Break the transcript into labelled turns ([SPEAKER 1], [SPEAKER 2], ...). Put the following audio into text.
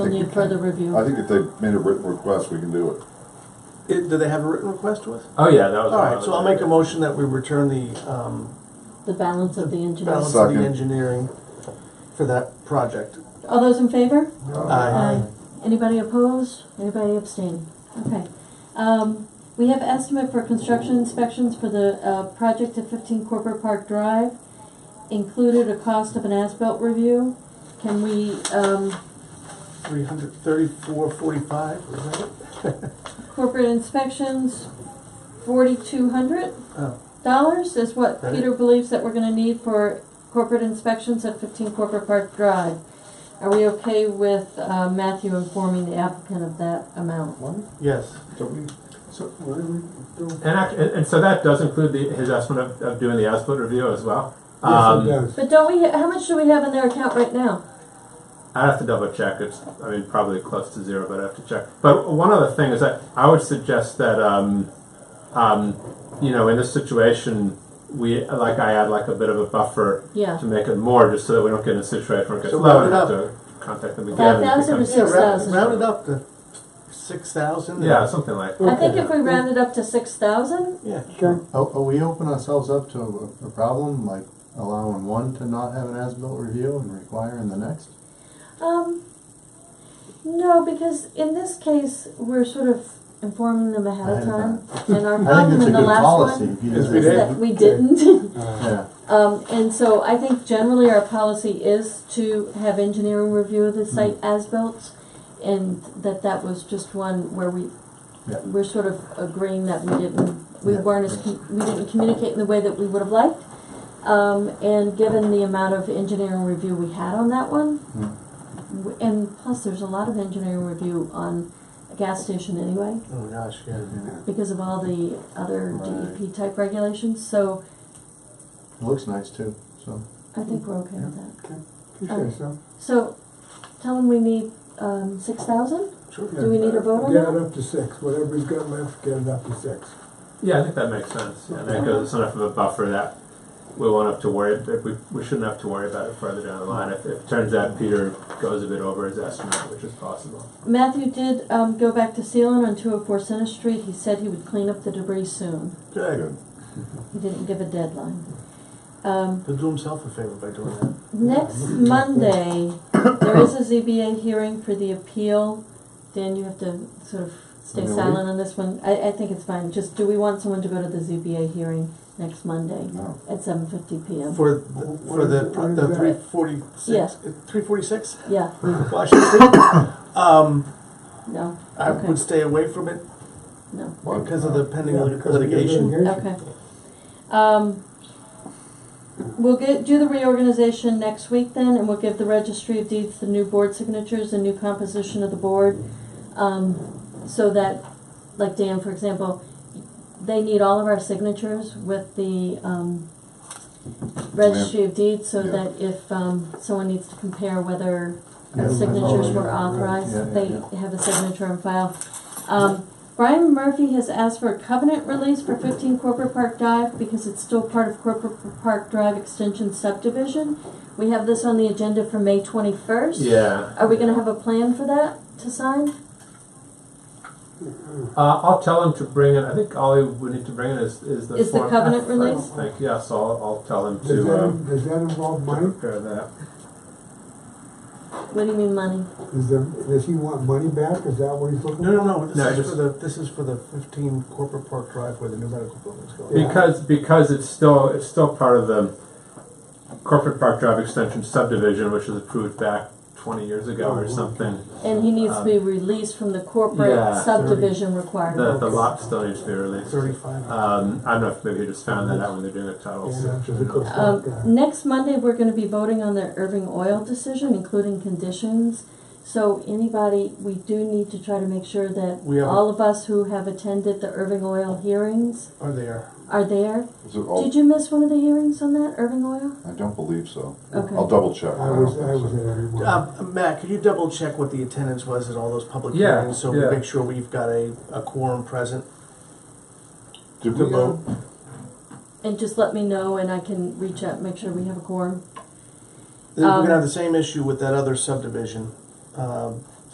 [SPEAKER 1] We'll need further review.
[SPEAKER 2] I think if they made a written request, we can do it.
[SPEAKER 3] It- Do they have a written request to us?
[SPEAKER 4] Oh, yeah, that was.
[SPEAKER 3] All
[SPEAKER 4] one
[SPEAKER 3] right,
[SPEAKER 4] of
[SPEAKER 3] so
[SPEAKER 4] the-
[SPEAKER 3] I'll make a motion that we return the um,
[SPEAKER 1] The balance of the engineering.
[SPEAKER 3] balance of
[SPEAKER 2] Second.
[SPEAKER 3] the engineering for that project.
[SPEAKER 1] All those in favor?
[SPEAKER 3] Aye.
[SPEAKER 4] Uh,
[SPEAKER 1] Anybody opposed? Anybody abstain? Okay. Um, we have estimate for construction inspections for the, uh, project at fifteen Corporate Park Drive. Included a cost of an as-built review. Can we, um,
[SPEAKER 3] 33445, was that it?
[SPEAKER 1] corporate inspections, forty-two hundred
[SPEAKER 3] Oh,
[SPEAKER 1] dollars is what
[SPEAKER 3] Right.
[SPEAKER 1] Peter believes that we're gonna need for corporate inspections at fifteen Corporate Park Drive. Are we okay with, uh, Matthew informing the applicant of that amount?
[SPEAKER 3] Yes.
[SPEAKER 4] And, act- and, and so that does include the, his estimate of, of doing the as-built review as well. Um,
[SPEAKER 1] But don't we, how much do we have in their account right now?
[SPEAKER 4] I'd have to double check. It's, I mean, probably close to zero, but I have to check. But one other thing is that I would suggest that, um, um, you know, in this situation, we like I add like a bit of a buffer
[SPEAKER 1] Yeah.
[SPEAKER 4] to make it more, just so that we don't get in a situation where it gets
[SPEAKER 3] So
[SPEAKER 4] low and have
[SPEAKER 3] round it
[SPEAKER 4] to contact them again.
[SPEAKER 1] Five
[SPEAKER 4] and it
[SPEAKER 1] thousand or
[SPEAKER 4] becomes-
[SPEAKER 3] Yeah, round-
[SPEAKER 1] 6,000.
[SPEAKER 3] round it up to 6,000.
[SPEAKER 4] Yeah, something like.
[SPEAKER 1] I think if we round it up to six thousand,
[SPEAKER 3] Yeah.
[SPEAKER 5] Are, are uh, we opening ourselves up to a, a problem, like allowing one to not have an as-built review and requiring the next?
[SPEAKER 1] um, no, because in this case, we're sort of informing them ahead of
[SPEAKER 5] Ahead of
[SPEAKER 1] time. And our
[SPEAKER 5] I think
[SPEAKER 1] problem
[SPEAKER 5] it's a
[SPEAKER 1] in the
[SPEAKER 5] good
[SPEAKER 1] last
[SPEAKER 5] policy.
[SPEAKER 1] one
[SPEAKER 5] if you
[SPEAKER 3] Yes,
[SPEAKER 5] do
[SPEAKER 3] we
[SPEAKER 1] is
[SPEAKER 5] that.
[SPEAKER 3] did.
[SPEAKER 1] that we didn't.
[SPEAKER 3] Oh,
[SPEAKER 5] Yeah,
[SPEAKER 1] Um, and so I think generally our policy is to have engineering review of the
[SPEAKER 5] Mm-hmm.
[SPEAKER 1] site as built. And that that was just one where we,
[SPEAKER 5] Yeah.
[SPEAKER 1] we're sort of agreeing that we didn't, we
[SPEAKER 5] Yeah.
[SPEAKER 1] weren't as, com- we didn't communicate in the way that we would have liked. Um, and given the amount of engineering review we had on that one,
[SPEAKER 5] Mm.
[SPEAKER 1] w- and plus there's a lot of engineering review on a gas station anyway,
[SPEAKER 3] Oh, gosh, yeah.
[SPEAKER 1] because of all the other
[SPEAKER 5] Right.
[SPEAKER 1] DEP type regulations, so
[SPEAKER 5] it looks nice too, so.
[SPEAKER 1] I think we're okay with that. Okay.
[SPEAKER 5] so.
[SPEAKER 1] So, tell them we need, um, six thousand?
[SPEAKER 3] Sure.
[SPEAKER 1] Do we need a vote on
[SPEAKER 6] Get it
[SPEAKER 1] that?
[SPEAKER 6] up to six, whatever he's got left, get it up to six.
[SPEAKER 4] Yeah, I think that makes sense. Yeah, that goes, it's enough of a buffer that we won't have to worry, that we, we shouldn't have to worry about it further down the line. If, if it turns out Peter goes a bit over his estimate, which is possible.
[SPEAKER 1] Matthew did, um, go back to Sealand on two oh four Center Street, he said he would clean up the debris soon,
[SPEAKER 3] Good.
[SPEAKER 1] he didn't give a deadline. Um,
[SPEAKER 3] He'll do himself a favor by doing that.
[SPEAKER 1] next Monday, there is a ZBA hearing for the appeal, Dan, you have to sort of stay
[SPEAKER 5] Really?
[SPEAKER 1] silent on this one, I, I think it's fine, just, do we want someone to go to the ZBA hearing next Monday
[SPEAKER 2] No.
[SPEAKER 1] at seven fifty P M?
[SPEAKER 3] For, the- for the,
[SPEAKER 6] What is- what is
[SPEAKER 3] the
[SPEAKER 6] that?
[SPEAKER 3] 346, 346
[SPEAKER 1] Yeah,
[SPEAKER 3] Washington Street? Um,
[SPEAKER 1] no,
[SPEAKER 3] I
[SPEAKER 1] Okay.
[SPEAKER 3] would stay away from it
[SPEAKER 1] no,
[SPEAKER 3] because of the pending
[SPEAKER 6] Yeah,
[SPEAKER 3] lit-
[SPEAKER 6] because of the
[SPEAKER 3] litigation.
[SPEAKER 6] litigation.
[SPEAKER 1] okay. Um, we'll get, do the reorganization next week then, and we'll give the registry of deeds the new board signatures, the new composition of the board. Um, so that, like Dan, for example, they need all of our signatures with the, um, registry of deeds, so
[SPEAKER 2] Yeah.
[SPEAKER 1] that if, um, someone needs to compare whether
[SPEAKER 5] Yeah,
[SPEAKER 1] the signatures
[SPEAKER 5] yeah,
[SPEAKER 1] were
[SPEAKER 5] yeah, yeah,
[SPEAKER 1] authorized, they
[SPEAKER 5] yeah.
[SPEAKER 1] have a signature on file. Um, Brian Murphy has asked for a covenant release for fifteen Corporate Park Drive because it's still part of Corporate Park Drive Extension subdivision. We have this on the agenda for May twenty-first.
[SPEAKER 4] Yeah.
[SPEAKER 1] Are we gonna have a plan for that to sign?
[SPEAKER 4] Uh, I'll tell him to bring in, I think all he would need to bring in is, is the.
[SPEAKER 1] Is the
[SPEAKER 4] Form F,
[SPEAKER 1] covenant
[SPEAKER 4] I
[SPEAKER 1] release?
[SPEAKER 4] think, yes, I'll, I'll tell him
[SPEAKER 6] Does
[SPEAKER 4] to,
[SPEAKER 6] that,
[SPEAKER 4] um,
[SPEAKER 6] does that involve
[SPEAKER 4] to
[SPEAKER 6] money?
[SPEAKER 4] prepare that.
[SPEAKER 1] What do you mean money?
[SPEAKER 6] Is there, does he want money back? Is that what he's looking
[SPEAKER 3] No,
[SPEAKER 6] for?
[SPEAKER 3] no, no,
[SPEAKER 4] No,
[SPEAKER 3] this is
[SPEAKER 4] just-
[SPEAKER 3] for the, this is for the fifteen Corporate Park Drive where the new medical building's going.
[SPEAKER 4] Because, because it's still, it's still part of the Corporate Park Drive Extension subdivision, which was approved back twenty years
[SPEAKER 6] Oh,
[SPEAKER 4] ago or something.
[SPEAKER 1] And he needs to be released from the corporate
[SPEAKER 4] Um, Yeah,
[SPEAKER 1] subdivision
[SPEAKER 4] The,
[SPEAKER 1] requirement.
[SPEAKER 4] the lot still needs to be released.
[SPEAKER 3] Thirty-five.
[SPEAKER 4] Um, I don't know if maybe he just found that out when they're doing the titles.
[SPEAKER 6] Yeah, because it looks like that.
[SPEAKER 1] Um, next Monday, we're gonna be voting on the Irving Oil decision, including conditions. So anybody, we do need to try to make sure that
[SPEAKER 3] We have-
[SPEAKER 1] all of us who have attended the Irving Oil hearings
[SPEAKER 3] Are there?
[SPEAKER 1] are there.
[SPEAKER 2] Is it all,
[SPEAKER 3] Oh.
[SPEAKER 1] Did you miss one of the hearings on that, Irving Oil?
[SPEAKER 2] I don't believe so.
[SPEAKER 1] Okay.
[SPEAKER 2] I'll double check.
[SPEAKER 6] I was, I was at every one.
[SPEAKER 3] Uh, Matt, could you double check what the attendance was at all those public
[SPEAKER 4] Yeah,
[SPEAKER 3] hearings? So we
[SPEAKER 4] yeah.
[SPEAKER 3] make sure we've got a, a quorum present?
[SPEAKER 2] Did
[SPEAKER 3] The
[SPEAKER 2] we, uh,
[SPEAKER 3] vote.
[SPEAKER 1] And just let me know and I can reach out, make sure we have a quorum.
[SPEAKER 3] We're
[SPEAKER 1] Um,
[SPEAKER 3] gonna have the same issue with that other subdivision. Um,